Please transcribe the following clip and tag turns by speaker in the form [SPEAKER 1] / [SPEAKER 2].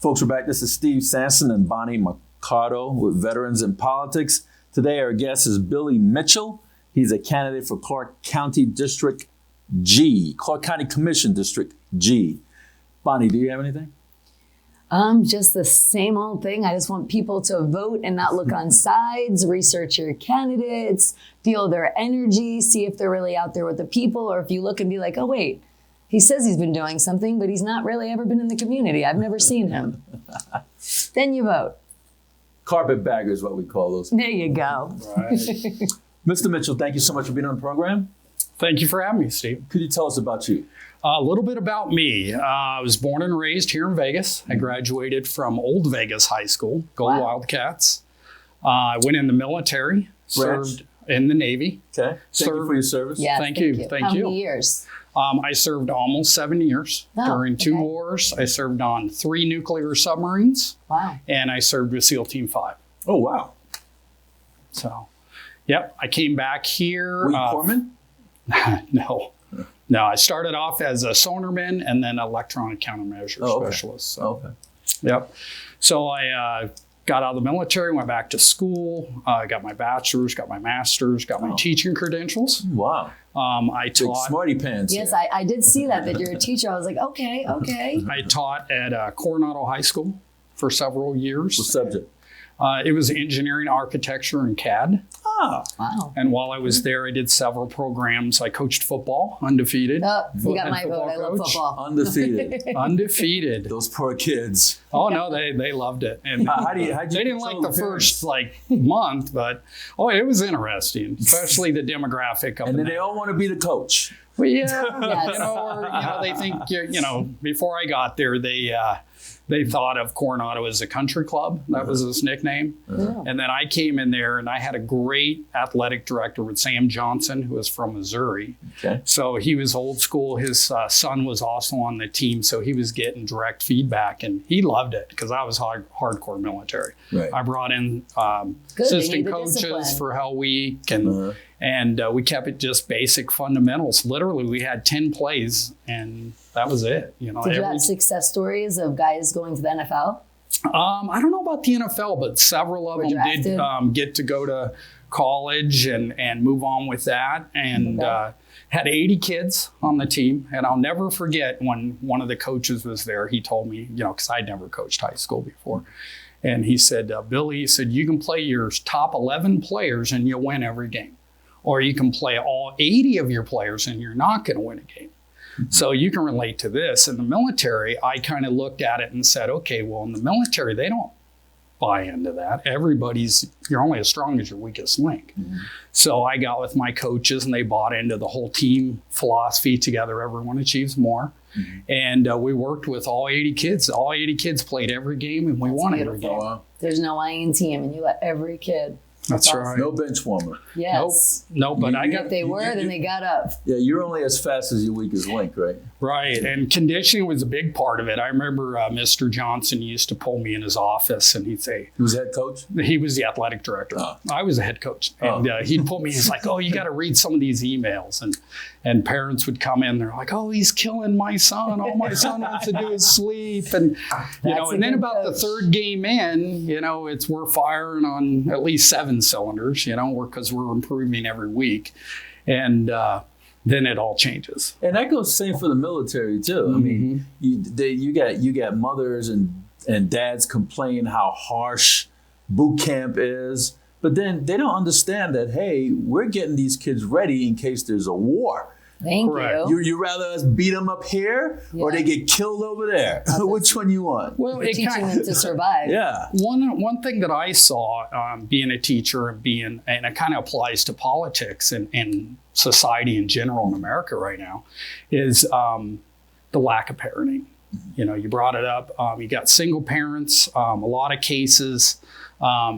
[SPEAKER 1] folks, we're back. This is Steve Sanson and Bonnie Mercado with Veterans in Politics. Today, our guest is Billy Mitchell. He's a candidate for Clark County District G, Clark County Commission District G. Bonnie, do you have anything?
[SPEAKER 2] Um, just the same old thing. I just want people to vote and not look on sides, research your candidates, feel their energy, see if they're really out there with the people, or if you look and be like, oh, wait, he says he's been doing something, but he's not really ever been in the community. I've never seen him. then you vote.
[SPEAKER 1] Carpetbagger is what we call those.
[SPEAKER 2] There you go.
[SPEAKER 1] Mr. Mitchell, thank you so much for being on the program.
[SPEAKER 3] Thank you for having me, Steve.
[SPEAKER 1] Could you tell us about you?
[SPEAKER 3] A little bit about me. Uh, I was born and raised here in Vegas. I graduated from Old Vegas High School, Go
[SPEAKER 2] Wow.
[SPEAKER 3] Wildcats. Uh, I went in the military,
[SPEAKER 1] Branch?
[SPEAKER 3] served in the Navy.
[SPEAKER 1] Okay. Thank you
[SPEAKER 3] Sir.
[SPEAKER 1] for your service.
[SPEAKER 2] Yeah.
[SPEAKER 3] Thank you, thank
[SPEAKER 2] How
[SPEAKER 3] you.
[SPEAKER 2] many years?
[SPEAKER 3] Um, I served almost seven years
[SPEAKER 2] Oh,
[SPEAKER 3] during two
[SPEAKER 2] okay.
[SPEAKER 3] wars. I served on three nuclear submarines,
[SPEAKER 2] Wow.
[SPEAKER 3] and I served with SEAL Team 5.
[SPEAKER 1] Oh, wow.
[SPEAKER 3] So, yep, I came back here.
[SPEAKER 1] Were you
[SPEAKER 3] uh,
[SPEAKER 1] corpsman?
[SPEAKER 3] no. No, I started off as a sonarman and then electronic countermeasure
[SPEAKER 1] Oh, okay.
[SPEAKER 3] specialist. So.
[SPEAKER 1] Okay.
[SPEAKER 3] Yep. So I uh, got out of the military, went back to school, uh, got my bachelor's, got my master's, got my
[SPEAKER 1] Oh.
[SPEAKER 3] teaching credentials.
[SPEAKER 1] Wow.
[SPEAKER 3] Um, I
[SPEAKER 1] Big
[SPEAKER 3] taught.
[SPEAKER 1] smarty pants.
[SPEAKER 2] Yes,
[SPEAKER 1] here.
[SPEAKER 2] I, I did see that, that you're a teacher. I was like, okay, okay.
[SPEAKER 3] I taught at uh, Coronado High School for several
[SPEAKER 1] What
[SPEAKER 3] years.
[SPEAKER 1] subject?
[SPEAKER 3] Uh, it was engineering, architecture, and CAD.
[SPEAKER 1] Ah,
[SPEAKER 2] Wow.
[SPEAKER 3] And while I was
[SPEAKER 2] Mm-hmm.
[SPEAKER 3] there, I did several programs. I coached football, undefeated.
[SPEAKER 2] Oh, you got
[SPEAKER 3] Head
[SPEAKER 2] my vote.
[SPEAKER 3] football
[SPEAKER 2] I love
[SPEAKER 3] coach.
[SPEAKER 2] football.
[SPEAKER 1] undefeated.
[SPEAKER 3] Undefeated.
[SPEAKER 1] Those poor kids.
[SPEAKER 3] Oh no, they they loved it. And
[SPEAKER 1] How- how do you- how'd you
[SPEAKER 3] they didn't like
[SPEAKER 1] control
[SPEAKER 3] the
[SPEAKER 1] the
[SPEAKER 3] first like month, but oh, it was interesting, especially the demographic of
[SPEAKER 1] And
[SPEAKER 3] the
[SPEAKER 1] then they
[SPEAKER 3] night.
[SPEAKER 1] all want to be the coach.
[SPEAKER 3] Well, yeah,
[SPEAKER 2] Yes.
[SPEAKER 3] you know, or, you know, they think you're, you know. Before I got there, they uh, they thought of Coronado as a country club. That was his nickname.
[SPEAKER 2] Yeah.
[SPEAKER 3] And then I came in there, and I had a great athletic director with Sam Johnson, who was from Missouri.
[SPEAKER 1] Okay.
[SPEAKER 3] So he was old school. His uh, son was also on the team, so he was getting direct feedback, and he loved it because I was hard, hardcore military.
[SPEAKER 1] Right.
[SPEAKER 3] I brought in um,
[SPEAKER 2] Good, they need
[SPEAKER 3] assistant
[SPEAKER 2] the
[SPEAKER 3] coaches
[SPEAKER 2] discipline.
[SPEAKER 3] for Hell Week, and
[SPEAKER 1] Uh-huh.
[SPEAKER 3] and uh, we kept it just basic fundamentals. Literally, we had ten plays, and that was it. You know,
[SPEAKER 2] Did you
[SPEAKER 3] every-
[SPEAKER 2] have success stories of guys going to the NFL?
[SPEAKER 3] um, I don't know about the NFL, but several of
[SPEAKER 2] Were
[SPEAKER 3] them
[SPEAKER 2] drafted?
[SPEAKER 3] did um, get to go to college and and move on with that, and
[SPEAKER 2] Okay.
[SPEAKER 3] uh, had 80 kids on the team. And I'll never forget when one of the coaches was there. He told me, you know, because I'd never coached high school before, and he said, uh, Billy, he said you can play your top 11 players and you'll win every game, or you can play all 80 of your players and you're not going to win a game. So you can relate to this. In the military, I kind of looked at it and said, okay, well, in the military, they don't buy into that. Everybody's, you're only as strong as your weakest link. So I got with my coaches and they bought into the whole team philosophy together, everyone achieves more. And uh, we worked with all 80 kids. All 80 kids played every game and we won every
[SPEAKER 1] Oh,
[SPEAKER 3] game.
[SPEAKER 1] wow.
[SPEAKER 2] There's no IN team, and you let every kid.
[SPEAKER 3] That's
[SPEAKER 2] awesome.
[SPEAKER 3] right.
[SPEAKER 1] No bench warmer.
[SPEAKER 2] Yes.
[SPEAKER 3] No, but I
[SPEAKER 1] You-
[SPEAKER 3] got
[SPEAKER 2] If they were, then they got up.
[SPEAKER 1] Yeah, you're only as fast as your weakest link, right?
[SPEAKER 3] Right, and conditioning was a big part of it. I remember uh, Mr. Johnson used to pull me in his office and he'd say,
[SPEAKER 1] He was head coach.
[SPEAKER 3] he was the athletic director.
[SPEAKER 1] Oh.
[SPEAKER 3] I was a head coach, and
[SPEAKER 1] Oh.
[SPEAKER 3] uh, he'd pull me. He's like, "Oh, you got to read some of these emails," and and parents would come in. They're like, "Oh, he's killing my son. All my son wants to do is sleep." And you
[SPEAKER 2] That's
[SPEAKER 3] know,
[SPEAKER 2] a
[SPEAKER 3] and then
[SPEAKER 2] good
[SPEAKER 3] about the
[SPEAKER 2] coach.
[SPEAKER 3] third game in, you know, it's we're firing on at least seven cylinders. You know, we're because we're improving every week, and uh, then it all changes.
[SPEAKER 1] And that goes same for the military too. I mean, you, they, you got you got mothers and and dads complain how harsh boot camp is, but then they don't understand that hey, we're getting these kids ready in case there's a war.
[SPEAKER 2] Thank
[SPEAKER 3] Correct.
[SPEAKER 2] you.
[SPEAKER 1] You you rather us beat them up here or
[SPEAKER 2] Yeah.
[SPEAKER 1] they get killed over there? Which one you want?
[SPEAKER 3] Well,
[SPEAKER 2] You're teaching them to survive.
[SPEAKER 1] Yeah.
[SPEAKER 3] One one thing that I saw um, being a teacher and being and it kind of applies to politics and, and society in general in America right now is um, the lack of parenting. You know, you brought it up. Um, you got single parents. Um, a lot of cases. Um,